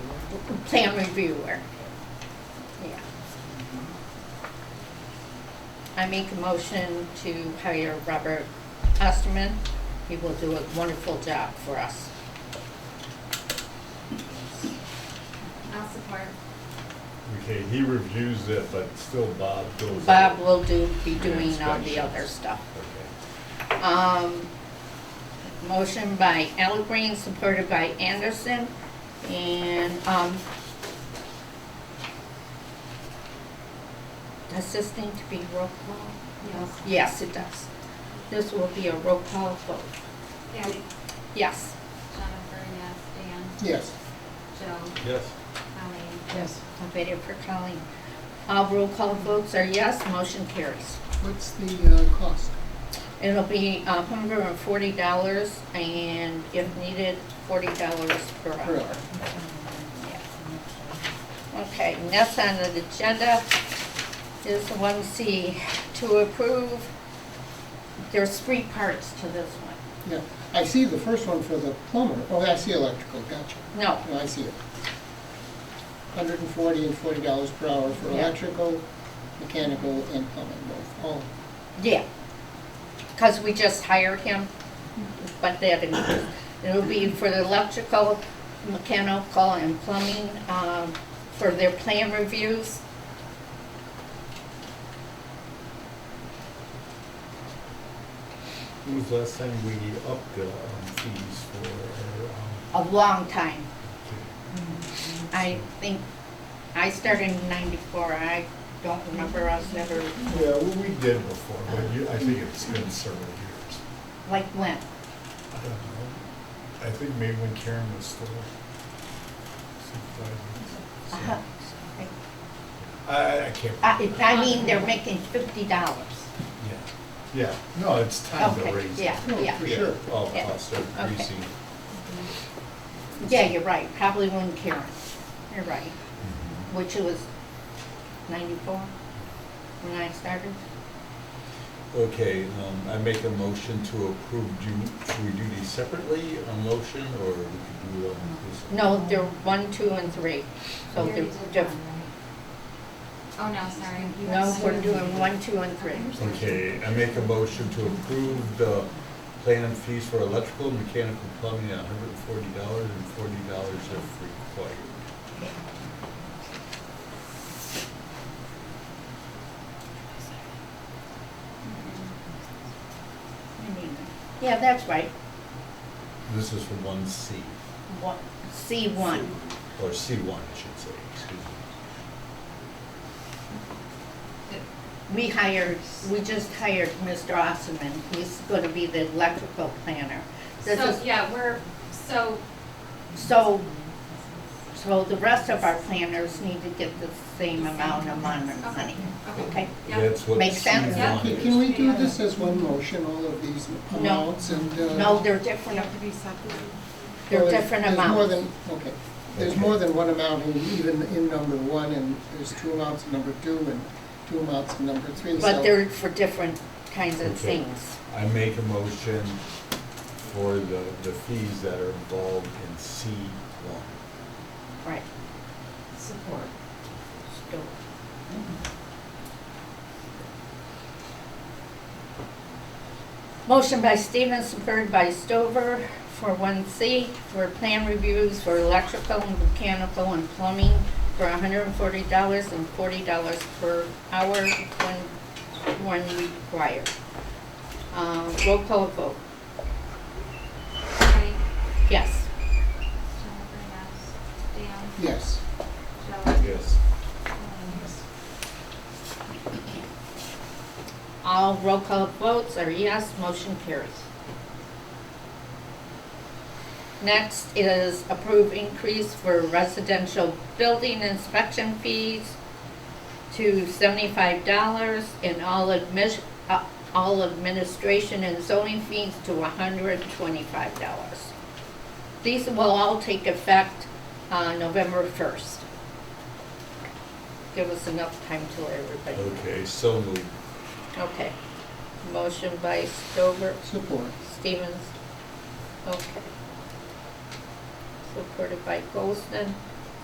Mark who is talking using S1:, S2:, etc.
S1: plan reviewer. Yeah. I make a motion to hire Robert Osterman. He will do a wonderful job for us.
S2: I'll support.
S3: Okay, he reviews it, but still Bob goes.
S1: Bob
S3: out.
S1: will do, be doing all the other
S3: Inspections.
S1: stuff.
S3: Okay.
S1: Um, motion by Green, supported by Anderson, and, um, assisting to be roll call?
S2: Yes.
S1: Yes, it does. This will be a roll call vote.
S2: Patty,
S1: Yes.
S2: Jennifer, yes, Dan,
S4: Yes.
S2: Joe,
S3: Yes.
S2: Colleen.
S1: Yes. I waited for Colleen. All uh, roll call votes are yes, motion carries.
S4: What's the uh, cost?
S1: It'll be a hundred and forty dollars, and if needed, forty dollars per
S4: Per
S1: hour.
S4: hour.
S1: Okay, next on the agenda is the one C, to approve, there's three parts to this one.
S4: Yeah, I see the first one for the plumber, oh, I see electrical, gotcha.
S1: No,
S4: No, I see it. Hundred and forty and forty dollars per hour for
S1: Yeah.
S4: electrical, mechanical, and plumbing both, Oh. all.
S1: yeah, because we just hired him, but that, it- it'll be for the electrical, mechanical, and plumbing, um, for their plan reviews.
S3: When was the last time we upped the um, fees for, uh, our,
S1: a long time.
S3: um,
S1: I think, I started in ninety-four, I don't remember us ever,
S3: okay. yeah, well, we did before, but you, I think it's been several years.
S1: like when?
S3: I don't know. I think maybe when Karen was still
S1: Uh-huh.
S3: supervising. I, I can't.
S1: I,
S3: remember.
S1: I mean, they're making fifty dollars.
S3: Yeah, yeah, no, it's time to
S1: Okay,
S3: raise it.
S1: yeah,
S4: No,
S1: yeah.
S4: For sure.
S3: All
S1: Yeah.
S3: costs are
S1: Okay.
S3: increasing.
S1: Yeah, you're right, probably when Karen, you're right, which was ninety-four when I started.
S5: Okay, um, I make a motion to approve, do, should we do these separately, a motion, or we could do um, them?
S1: No, they're one, two, and three, so
S2: You
S1: they're,
S2: already did
S1: diff-
S2: one, right? Oh, no, sorry.
S1: no, we're doing one, two, and three.
S5: Okay, I make a motion to approve the plan fees for electrical, mechanical, plumbing at hundred and forty dollars and forty dollars if required.
S1: Yeah, that's right,
S5: This is for one C,
S1: one, C one.
S5: or C one, I should say, excuse me.
S1: We hired, we just hired Mr. Osman, he's gonna be the electrical planner. This
S2: So,
S1: is,
S2: yeah, we're, so,
S1: so, so the rest of our planners need to get the same amount of mon- money,
S2: okay,
S1: okay?
S2: yeah,
S5: That's what
S1: Makes
S5: C
S1: sense.
S2: Yeah.
S5: one
S4: Can
S5: is.
S4: can we do this as one motion, all of these amounts and? uh,
S1: No, they're different,
S6: have to be separate.
S1: they're
S4: or
S1: different
S4: There's more
S1: amounts.
S4: than, okay, there's more than one amount, and even in number one, and there's two amounts in number two, and two amounts in number three, so.
S1: But they're for different kinds of
S5: Okay.
S1: things.
S5: I make a motion for the, the fees that are involved in C one.
S1: Right.
S6: Support.
S1: Still. Motion by Stevens, supported by Stover for one C, for plan reviews for electrical and mechanical and plumbing for hundred and forty dollars and forty dollars per hour when, when required. Uh, roll call vote,
S2: Patty,
S1: yes.
S2: Jennifer, yes, Dan,
S4: Yes.
S2: Joe,
S5: Yes.
S2: Colleen.
S1: All roll call votes are yes, motion carries. Next is approve increase for residential building inspection fees to seventy-five dollars and all admis- uh, all administration and zoning fees to hundred and twenty-five dollars. These will all take effect, uh, November first. Give us enough time till everybody.
S5: Okay, so moved.
S1: Okay. Motion by Stover,
S4: Support.
S1: Stevens. Okay. Supported by Goldston.